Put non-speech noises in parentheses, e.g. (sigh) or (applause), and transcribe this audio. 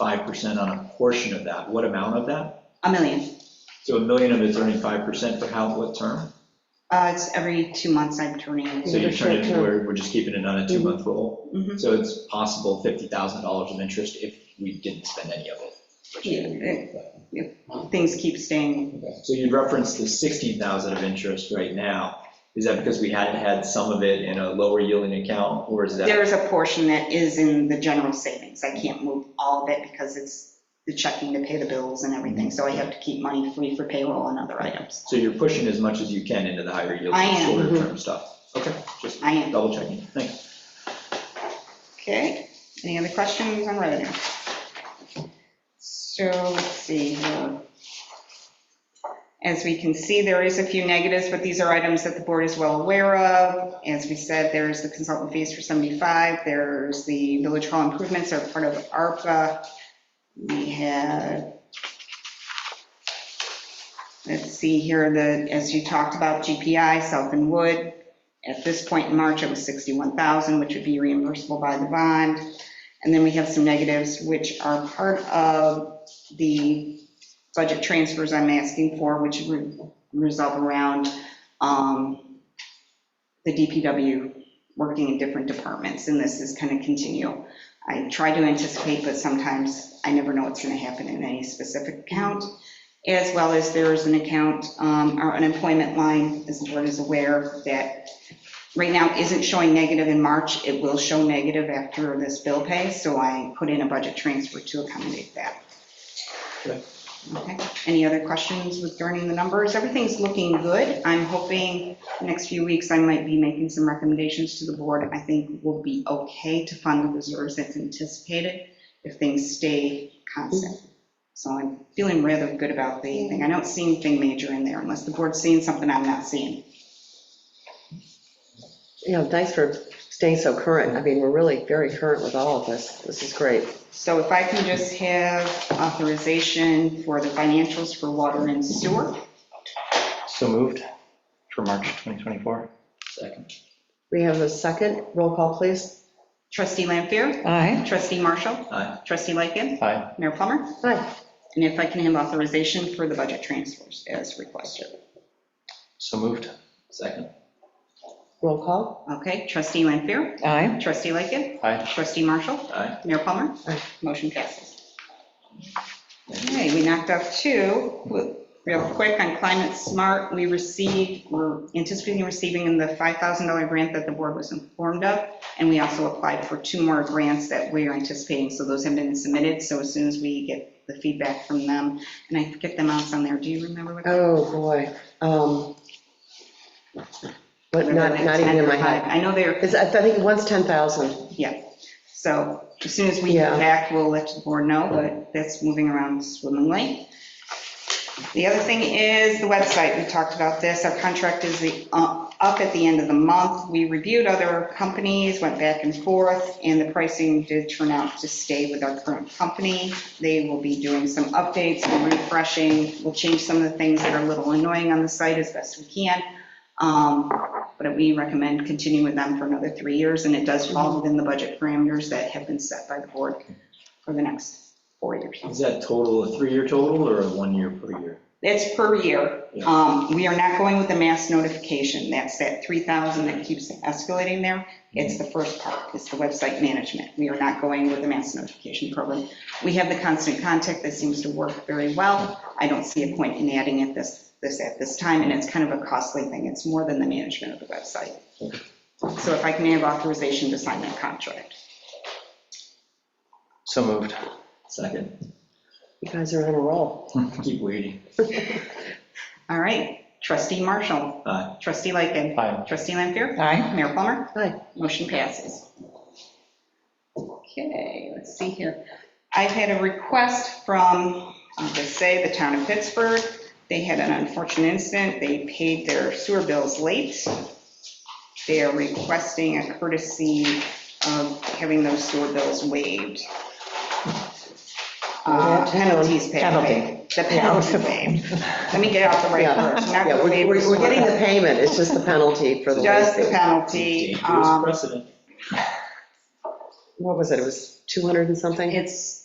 5% on a portion of that. What amount of that? a million. So a million of it's earning 5% for how, what term? Uh, It's every two months I'm turning it. So you Yeah, turn it, short term. we're, we're just keeping it on a two-month roll. Mhm. So it's possible $50,000 of interest if we didn't spend any of it. which Yeah, is- Things keep staying. Okay. So you referenced the 16,000 of interest right now. Is that because we hadn't had some of it in a lower yielding account, or is that? There is a portion that is in the general savings. I can't move all of it because it's the checking to pay the bills and everything. So I have to keep money free for payroll and other items. So you're pushing as much as you can into the higher I yielding, am. Mm-hmm. shorter term stuff. Okay, just I am. double checking. Thanks. Okay, any other questions on revenue? So let's see here. As we can see, there is a few negatives, but these are items that the board is well aware of. As we said, there's the consultant fees for 75, there's the village hall improvements are part of ARPA. We had, let's see here, the, as you talked about, GPI, South and Wood, at this point in March, it was 61,000, which would be reimbursable by the bond. And then we have some negatives, which are part of the budget transfers I'm asking for, which would resolve around um, the DPW working in different departments, and this is kind of continual. I try to anticipate, but sometimes I never know what's going to happen in any specific account, as well as there is an account, um, our unemployment line, as the board is aware, that right now isn't showing negative in March, it will show negative after this bill pay, so I put in a budget transfer to accommodate that. Okay. Okay, any other questions regarding the numbers? Everything's looking good. I'm hoping the next few weeks I might be making some recommendations to the board. I think we'll be okay to fund the reserves that's anticipated if things stay constant. So I'm feeling rather good about the thing. I don't see anything major in there unless the board's seeing something I'm not seeing. You know, thanks for staying so current. I mean, we're really very current with all of this. This is great. So if I can just have authorization for the financials for water and sewer. So moved for March 2024. Second. We have a second. Roll call, please. Trustee Lampier, Aye. trustee Marshall, Aye. trustee Lightgev, Aye. Mayor Plummer, Aye. and if I can have authorization for the budget transfers as requested. So moved. Second. Roll call. Okay, trustee Lampier, Aye. trustee Lightgev, Aye. trustee Marshall, Aye. Mayor Plummer, Aye. motion passes. Okay, we knocked off two. Real quick on Climate Smart, we received, we're anticipating receiving the $5,000 grant that the board was informed of. And we also applied for two more grants that we are anticipating, so those have been submitted. So as soon as we get the feedback from them, and I forget the amounts on there, do you remember what? Oh, boy. Um, But whether Oh, not, they're not even in 10 or my head. five. I know they're, It's, I think one's 10,000. yeah. So as soon as we get Yeah. back, we'll let the board know, but that's moving around swimmingly. The other thing is the website. We talked about this. Our contract is the- uh, up at the end of the month. We reviewed other companies, went back and forth, and the pricing did turn out to stay with our current company. They will be doing some updates and refreshing. We'll change some of the things that are a little annoying on the site as best we can. Um, But we recommend continuing with them for another three years, and it does fall within the budget parameters that have been set by the board for the next four years. Is that total, a three-year total or a one-year per year? It's per year. Yeah. Um, We are not going with the mass notification. That's that 3,000 that keeps escalating there. It's the first part, it's the website management. We are not going with the mass notification program. We have the constant contact that seems to work very well. I don't see a point in adding it this, this at this time, and it's kind of a costly thing. It's more than the management of the website. So if I can have authorization to sign that contract. So moved. (laughs) Second. You guys are on a roll. Keep waiting. All right, trustee Marshall, Aye. trustee Lightgev, Aye. trustee Lampier, Aye. Mayor Plummer. Aye. Motion passes. Okay, let's see here. I've had a request from, I'll just say, the town of Pittsburgh. They had an unfortunate incident. They paid their sewer bills late. They are requesting a courtesy of having those sewer bills waived. Uh, Penalties paid. Penalty. The penalty waived. Let me get out the right Yeah. words. (laughs) Not Yeah, the we're, waiver, we're we're getting the sewer bill. payment. It's just the penalty for the. Just the late fee. penalty. Dangerous um, precedent. What was it? It was 200 and something? It's